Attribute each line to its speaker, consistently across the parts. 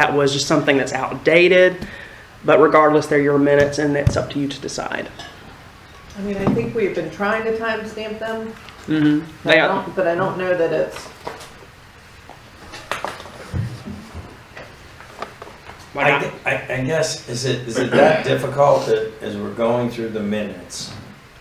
Speaker 1: that was just something that's outdated. But regardless, they're your minutes and it's up to you to decide.
Speaker 2: I mean, I think we've been trying to timestamp them,
Speaker 1: Mm-hmm.
Speaker 2: but I
Speaker 1: They are,
Speaker 2: don't, but I don't know that it's,
Speaker 1: why
Speaker 3: I,
Speaker 1: not?
Speaker 3: gue- I, I guess, is it, is it that difficult that as we're going through the minutes?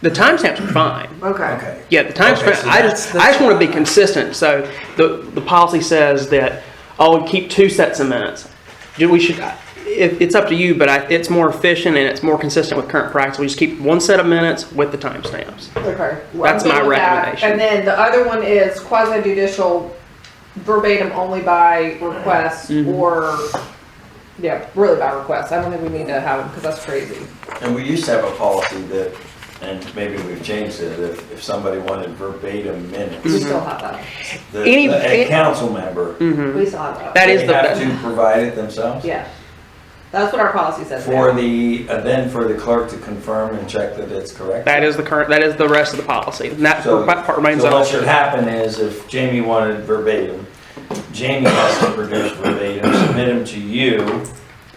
Speaker 1: the timestamps are fine.
Speaker 2: okay.
Speaker 3: Okay.
Speaker 1: Yeah, the timestamp,
Speaker 3: Okay, so
Speaker 1: I just,
Speaker 3: that's the-
Speaker 1: I just want to be consistent. So the, the policy says that, oh, keep two sets of minutes. Do we should, it, it's up to you, but I, it's more efficient and it's more consistent with current practice. We just keep one set of minutes with the timestamps.
Speaker 2: Okay. well,
Speaker 1: That's
Speaker 2: I'm good
Speaker 1: my
Speaker 2: with that.
Speaker 1: recommendation.
Speaker 2: And then the other one is quasi judicial verbatim only by request
Speaker 1: Mm-hmm.
Speaker 2: or, yeah, really by request. I don't think we need to have them because that's crazy.
Speaker 3: And we used to have a policy that, and maybe we've changed it, if, if somebody wanted verbatim
Speaker 1: Mm-hmm.
Speaker 2: We
Speaker 3: minutes,
Speaker 2: still have that.
Speaker 3: the,
Speaker 1: Any- Mm-hmm.
Speaker 3: the- a council member,
Speaker 2: We still have that.
Speaker 1: That is
Speaker 3: they
Speaker 1: the,
Speaker 3: have
Speaker 1: best.
Speaker 3: to provide it themselves?
Speaker 2: Yeah. That's what our policy says
Speaker 3: For
Speaker 2: now.
Speaker 3: the, uh, then for the clerk to confirm and check that it's correct?
Speaker 1: that is the current, that is the rest of the policy. And that
Speaker 3: So,
Speaker 1: part remains
Speaker 3: so what should
Speaker 1: unaltered.
Speaker 3: happen is if Jamie wanted verbatim, Jamie has to produce verbatim, submit them to you,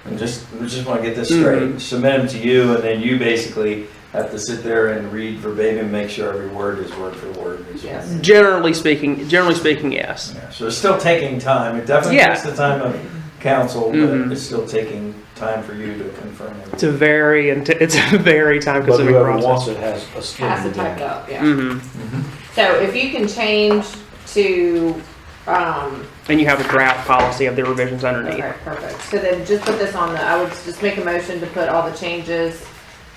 Speaker 3: and just, we just wanna get this
Speaker 1: Mm-hmm.
Speaker 3: straight, submit them to you, and then you basically have to sit there and read verbatim, make sure every word is word for word. is-
Speaker 2: Yes.
Speaker 1: Generally speaking, generally speaking, yes.
Speaker 3: Yeah, So it's still taking time, it definitely
Speaker 1: Yeah.
Speaker 3: takes the time of council,
Speaker 1: Mhm.
Speaker 3: but it's still taking time for you to confirm. everything.
Speaker 1: It's a very, int- it's a very time
Speaker 4: But
Speaker 1: consuming
Speaker 4: whoever
Speaker 1: process.
Speaker 4: wants it has a skin
Speaker 2: Has
Speaker 4: in
Speaker 2: to
Speaker 4: the
Speaker 2: type
Speaker 4: game.
Speaker 2: up, yeah.
Speaker 1: hmm
Speaker 3: Mm-hmm.
Speaker 2: So if you can change to, um,
Speaker 1: And you have a draft policy of the revisions underneath.
Speaker 2: Okay, perfect. So then just put this on the, I would just make a motion to put all the changes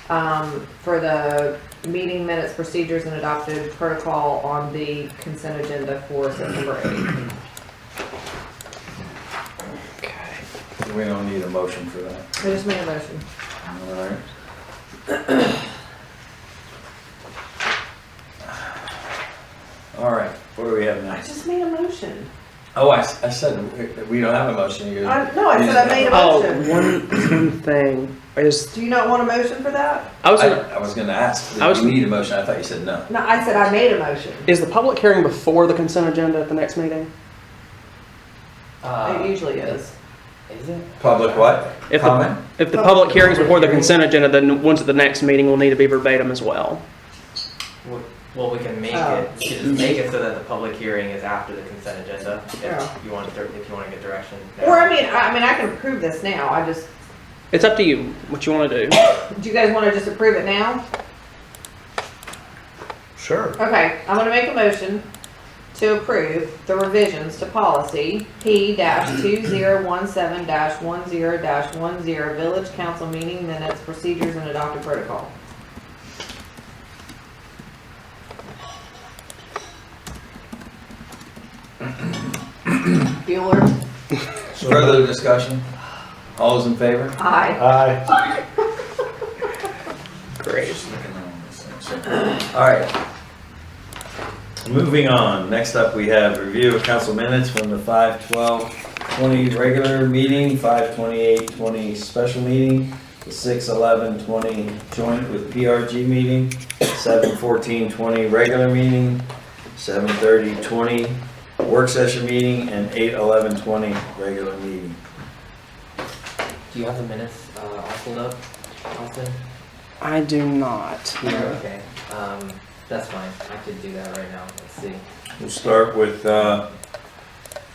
Speaker 2: um, for the meeting minutes, procedures, and adopted protocol on the consent agenda for September 8th.
Speaker 3: We don't need a motion for that,
Speaker 2: I just made a motion.
Speaker 3: all right? All right, what do we have
Speaker 2: I
Speaker 3: next?
Speaker 2: just made a motion.
Speaker 3: Oh, I, s- I said, we- we don't have a motion here.
Speaker 2: I- No, I said I made a
Speaker 1: Oh,
Speaker 2: motion.
Speaker 1: one, one thing is,
Speaker 2: Do you not want a motion for that?
Speaker 1: I was,
Speaker 3: I,
Speaker 1: gonna-
Speaker 3: I was gonna ask,
Speaker 1: I was-
Speaker 3: do you need a motion? I thought you said no.
Speaker 2: No, I said I made a motion.
Speaker 1: is the public hearing before the consent agenda at the next meeting?
Speaker 2: It usually is.
Speaker 5: Uh, Is it?
Speaker 3: Public what?
Speaker 1: If the-
Speaker 3: Comment?
Speaker 1: If the public hearing's before the consent agenda, then the ones at the next meeting will need to be verbatim as well.
Speaker 5: W- Well, we can make
Speaker 2: Oh.
Speaker 5: it, we can just make it so that the public hearing is after the consent agenda,
Speaker 2: Yeah.
Speaker 5: if you want, dir- if you want to get direction. now.
Speaker 2: Oh. Or I mean, I I mean, I can approve this now. I just,
Speaker 1: It's up to you, what you wanna do.
Speaker 2: do you guys want to just approve it now?
Speaker 4: Sure.
Speaker 2: Okay, I'm gonna make a motion to approve the revisions to policy P two zero one seven one zero one zero, village council meeting minutes, procedures and adopted protocol. Bueller,
Speaker 3: Further discussion? All those in favor?
Speaker 2: aye.
Speaker 4: Aye.
Speaker 1: Great.
Speaker 3: All right. Moving on, next up we have review of council minutes from the five twelve twenty regular meeting, five twenty-eight twenty special meeting, the six eleven twenty joint with PRG meeting, seven fourteen twenty regular meeting, seven thirty twenty work session meeting, and eight eleven twenty regular meeting.
Speaker 5: Do you have the minutes uh, all pulled up, Austin?
Speaker 1: I do not.
Speaker 5: Okay, um, that's fine, I could do that right now, let's see.
Speaker 3: We'll start with, uh,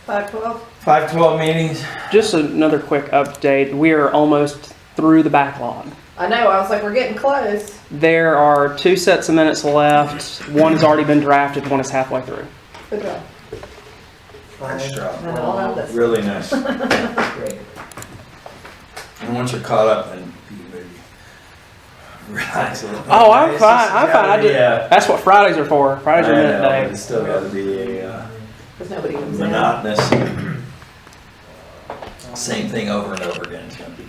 Speaker 2: Five twelve?
Speaker 3: five twelve meetings.
Speaker 1: Just another quick update, we are almost through the backlog.
Speaker 2: I know, I was like, we're getting close.
Speaker 1: There are two sets of minutes left, one has already been drafted, one is halfway through.
Speaker 2: Good job.
Speaker 3: Nice job.
Speaker 2: And I'll have this.
Speaker 3: Really nice.
Speaker 5: Great.
Speaker 3: And once you're caught up, then you maybe relax a little.
Speaker 1: Oh, I'm
Speaker 3: It's
Speaker 1: fine,
Speaker 3: just-
Speaker 1: I'm
Speaker 3: it's gotta
Speaker 1: fine, I
Speaker 3: be
Speaker 1: did-
Speaker 3: a-
Speaker 1: That's what Fridays are for, Fridays are
Speaker 3: I
Speaker 1: minute
Speaker 3: know,
Speaker 1: day.
Speaker 3: It's still gotta be a uh,
Speaker 2: Cause nobody comes in.
Speaker 3: monotonous, same thing over and over again, it's gonna be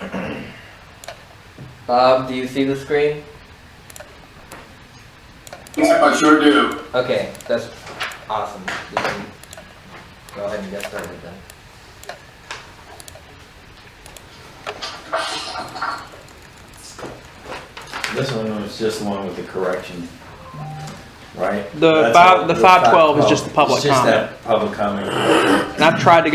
Speaker 3: challenging.
Speaker 5: Bob, Um, do you see the screen?
Speaker 6: Yep, I sure do.
Speaker 5: Okay, that's awesome. You can Go ahead and get started then.
Speaker 3: This one was just the one with the correction. right?
Speaker 1: The
Speaker 3: That's
Speaker 1: five-
Speaker 3: all-
Speaker 1: the 512 is just the
Speaker 3: It's
Speaker 1: public
Speaker 3: just
Speaker 1: comment.
Speaker 3: that Public comment.
Speaker 1: And I've tried to